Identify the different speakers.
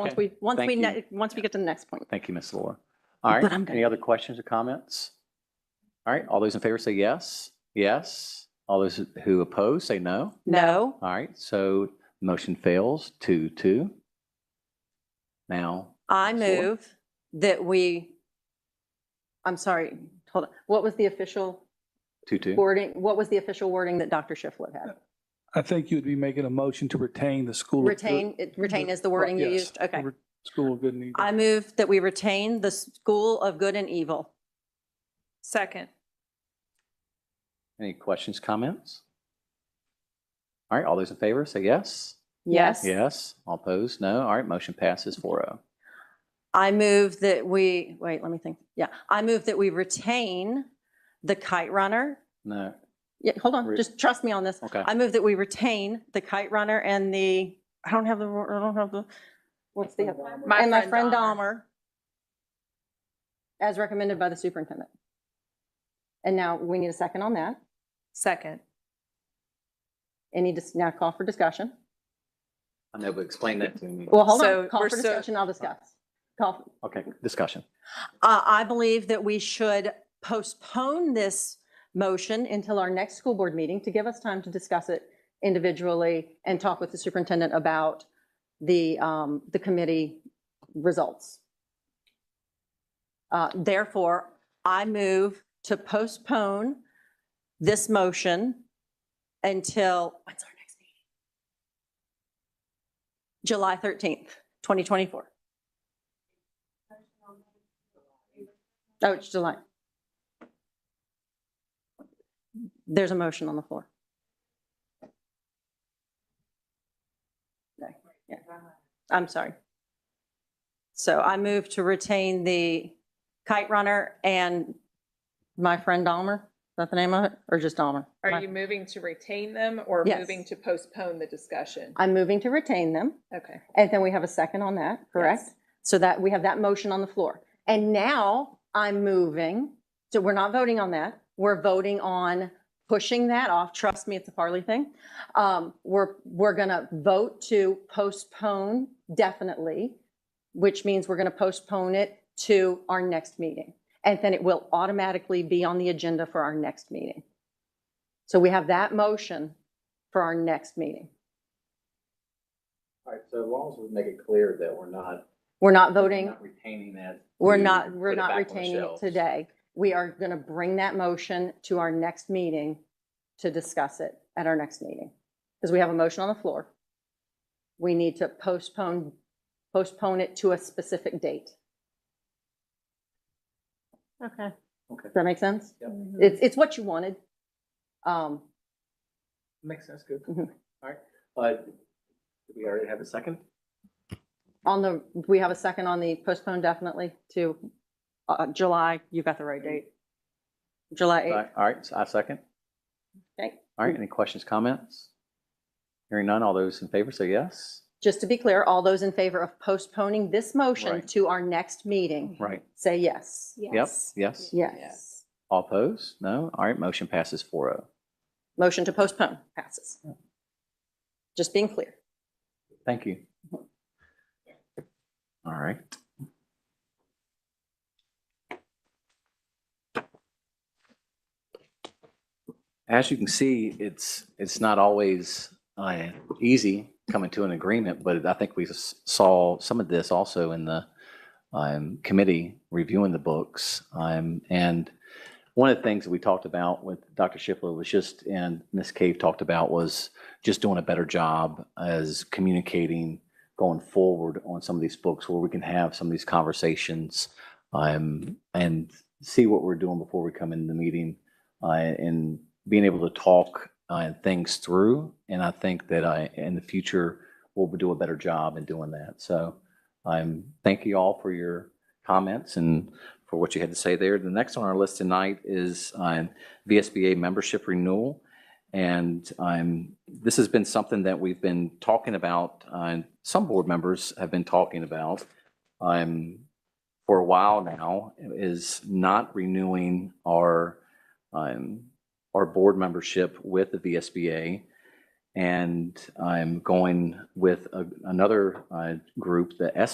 Speaker 1: Once
Speaker 2: Okay.
Speaker 1: we, once we,
Speaker 2: Thank
Speaker 1: ne- once we get to the next point.
Speaker 2: Thank you, Ms. Laura. All right,
Speaker 1: But I'm good.
Speaker 2: any other questions or comments? All right, all those in favor say yes, yes. All those who oppose say no.
Speaker 1: No,
Speaker 2: All right, so motion fails, two, two. Now,
Speaker 1: I
Speaker 2: Ms. Lord?
Speaker 1: move that we, I'm sorry, hold on. What was the official
Speaker 2: two, two.
Speaker 1: wording, what was the official wording that Dr. Shiflett had?
Speaker 3: I think you'd be making a motion to retain the school. of good-
Speaker 1: Retain, it- retain is the wording you
Speaker 3: Yes,
Speaker 1: used? Okay.
Speaker 3: re- School of good and evil.
Speaker 1: I move that we retain the school of good and evil.
Speaker 4: Second.
Speaker 2: Any questions, comments? All right, all those in favor say yes,
Speaker 1: Yes.
Speaker 2: yes. All opposed, no. All right, motion passes four oh.
Speaker 1: I move that we, wait, let me think. Yeah, I move that we retain the kite runner.
Speaker 2: No,
Speaker 1: Yeah, hold on,
Speaker 2: Re-
Speaker 1: just trust me on this.
Speaker 2: okay.
Speaker 1: I move that we retain the kite runner and the, I don't have the, I don't have the, what's the? And my friend Dahmer. As recommended by the superintendent. And now we need a second on that.
Speaker 4: Second.
Speaker 1: Any, dis- now call for discussion.
Speaker 2: I know, but explain that to me.
Speaker 1: Well, hold
Speaker 4: So
Speaker 1: on, call
Speaker 4: we're
Speaker 1: for
Speaker 4: so-
Speaker 1: discussion, I'll discuss. Call,
Speaker 2: Okay, discussion.
Speaker 1: Uh, I believe that we should postpone this motion until our next school board meeting to give us time to discuss it individually and talk with the superintendent about the, um, the committee results. Uh, Therefore, I move to postpone this motion until, when's our next meeting? July 13th, 2024. Oh, it's July. There's a motion on the floor. No, yeah. I'm sorry. So I move to retain the kite runner and my friend Dahmer. Is that the name of it? Or just Dahmer?
Speaker 4: Are
Speaker 1: My-
Speaker 4: you moving to retain them or
Speaker 1: Yes.
Speaker 4: moving to postpone the discussion?
Speaker 1: I'm moving to retain them.
Speaker 4: Okay.
Speaker 1: And then we have a second on that, correct?
Speaker 4: Yes.
Speaker 1: So that, we have that motion on the floor. And now I'm moving, so we're not voting on that. We're voting on pushing that off. Trust me, it's a Farley thing. Um, We're, we're going to vote to postpone definitely, which means we're going to postpone it to our next meeting. And then it will automatically be on the agenda for our next meeting. So we have that motion for our next meeting.
Speaker 5: All right, so as long as we make it clear that we're not.
Speaker 1: We're not
Speaker 5: we're
Speaker 1: voting
Speaker 5: not Retaining that.
Speaker 1: We're
Speaker 5: to
Speaker 1: not, we're
Speaker 5: put it
Speaker 1: not
Speaker 5: back on the
Speaker 1: retaining it
Speaker 5: shelves.
Speaker 1: today. We are going to bring that motion to our next meeting to discuss it at our next meeting. Because we have a motion on the floor. We need to postpone, postpone it to a specific date. Okay.
Speaker 5: Okay.
Speaker 1: Does that make sense?
Speaker 5: Yep.
Speaker 1: It's, it's what you wanted. Um,
Speaker 5: Makes sense, good. All
Speaker 1: Mhm.
Speaker 5: right, uh, do we already have a second?
Speaker 1: on the, we have a second on the postpone definitely to, uh, July, you got the right date.
Speaker 2: All
Speaker 1: July
Speaker 2: right, all right, so I second.
Speaker 1: 8th. Okay.
Speaker 2: All right, any questions, comments? Hearing none, all those in favor say yes.
Speaker 1: Just to be clear, all those in favor of postponing this motion
Speaker 2: Right.
Speaker 1: to our next meeting,
Speaker 2: Right.
Speaker 1: say yes.
Speaker 2: Yep, yes.
Speaker 1: Yes.
Speaker 2: All opposed? No? All right, motion passes oh. 4-0.
Speaker 1: Motion to postpone passes. Just being clear.
Speaker 2: Thank you. All right. As you can see, it's, it's not always uh, easy coming to an agreement, but I think we s- saw some of this also in the um, committee reviewing the books. Um, And one of the things that we talked about with Dr. Shipley was just, and Ms. Cave talked about was just doing a better job as communicating going forward on some of these books where we can have some of these conversations um, and see what we're doing before we come into the meeting uh, and being able to talk uh, things through. And I think that I, in the future, we'll do a better job in doing that. So um, thank you all for your comments and for what you had to say there. The next on our list tonight is um, VSBA membership renewal. And um, this has been something that we've been talking about, uh, and some board members have been talking about um, for a while now, is not renewing our, um, our board membership with the VSBA and I'm going with a- another uh, group, the